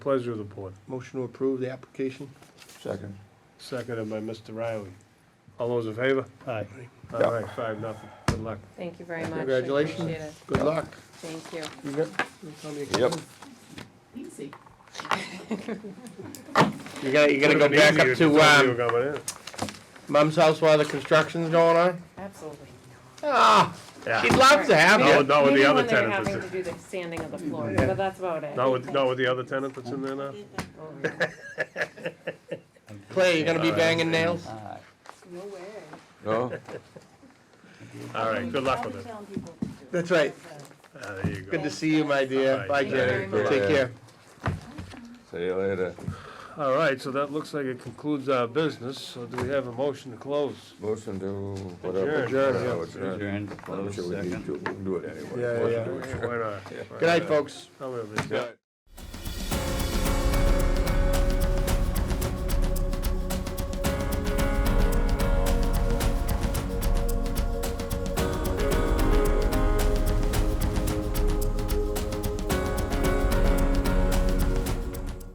Pleasure of the board. Motion to approve the application? Second. Seconded by Mr. Riley. All those in favor? Aye. All Yeah. right, five, nothing. Good luck. Thank you very much. I Congratulations. appreciate it. Good luck. Thank you. You got- you tell me again. Yep. Easy. You gotta, you gotta go Would've been back easier if up you to, told me um, you were coming in. Mum's house while the construction's going on? Absolutely. Ah, she'd love to have No, you. not with the Maybe other when they're tenant having that's to in. do the sanding of the floor, but that's about it. Not with, not with the other tenant that's in there now? Oh, yeah. Clay, you gonna be banging nails? Uh, No way. No? All right, good luck with it. That's right. Ah, There you Good go. to see you, my dear. Bye. Bye, Thank you Jenny. very Take much. care. See you later. All right, so that looks like it concludes our business. So do we have a motion to close? Motion to whatever. Adjourn. Adjourn, yeah. Oh, adjourn. Adjourn, I'm close, sure we second. need to, we can do it anyway. Yeah, yeah, Why not? Good night, folks. Come here, please. Yeah.